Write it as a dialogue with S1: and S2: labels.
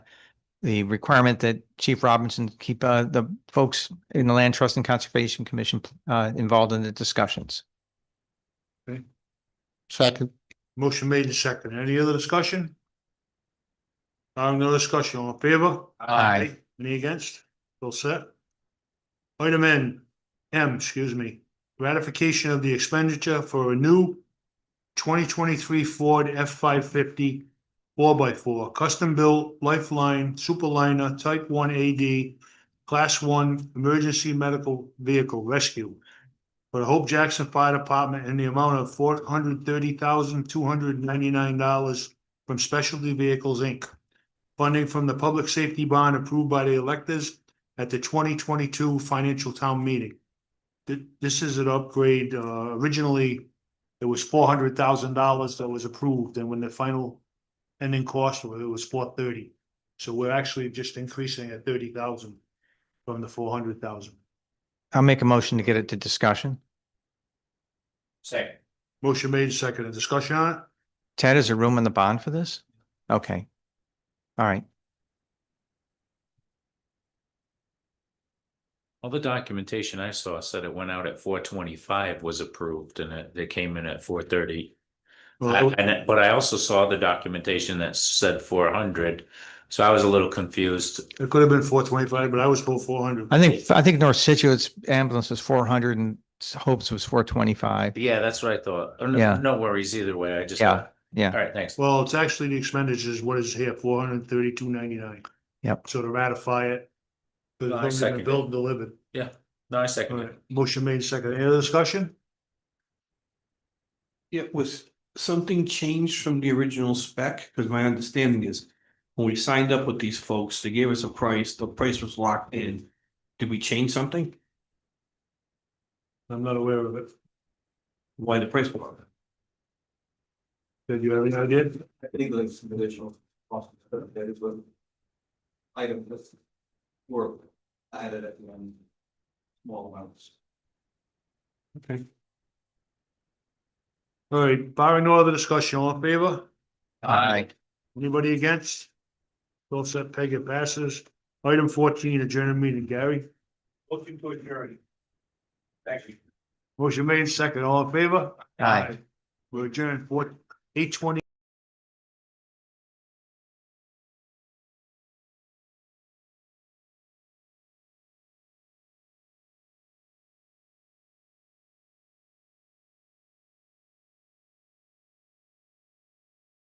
S1: the requirement that Chief Robinson keep uh, the folks in the Land Trust and Conservation Commission uh, involved in the discussions.
S2: Second.
S3: Motion made and second. Any other discussion? Um, no discussion. All in favor?
S1: Aye.
S3: Any against? All set? Item N, M, excuse me, ratification of the expenditure for a new twenty twenty-three Ford F five fifty four by four, custom-built Lifeline Superliner Type one AD, Class one Emergency Medical Vehicle Rescue for the Hope Jackson Fire Department in the amount of four hundred thirty thousand, two hundred ninety-nine dollars from Specialty Vehicles, Inc. Funding from the Public Safety Bond approved by the electors at the twenty twenty-two financial town meeting. Th- This is an upgrade, uh, originally, it was four hundred thousand dollars that was approved, and when the final ending cost, was, it was four thirty. So we're actually just increasing at thirty thousand from the four hundred thousand.
S1: I'll make a motion to get it to discussion.
S2: Second.
S3: Motion made, and seconded. Discussion on it?
S1: Ted, is there room in the bond for this? Okay. All right.
S4: All the documentation I saw said it went out at four twenty-five was approved and it, they came in at four thirty.
S3: Well,
S4: And, it- but I also saw the documentation that said four hundred, so I was a little confused.
S3: It could have been four twenty-five, but I was told four hundred.
S1: I think, I think North Situate's ambulance was four hundred and Hope's was four twenty-five.
S4: Yeah, that's what I thought. Oh, No
S1: Yeah.
S4: no worries either way, I just.
S1: Yeah, yeah.
S4: All right, thanks.
S3: Well, it's actually the expenditures, what is here, four hundred and thirty-two ninety-nine.
S1: Yep.
S3: So to ratify it. The
S4: I
S3: building
S4: second
S3: and
S4: it.
S3: build and delivered.
S4: No, I second
S3: Alright,
S4: it.
S3: motion made second. Any other discussion?
S2: It was something changed from the original spec, because my understanding is when we signed up with these folks, they gave us a price, the price was locked in. Did we change something?
S3: I'm not aware of it.
S2: Why the price? was locked?
S3: Did you have any idea?
S5: I think like some additional cost, that is what. Item that's. Were added at the end. Small amounts.
S2: Okay.
S3: All right, barring no other discussion, all in favor?
S1: Aye.
S3: Anybody against? All set, Peg, it passes. Item fourteen, adjourned meeting, Gary. Motion to adjourn.
S2: Thank you.
S3: Motion made second. All in favor?
S1: Aye.
S3: We're adjourned four, eight twenty.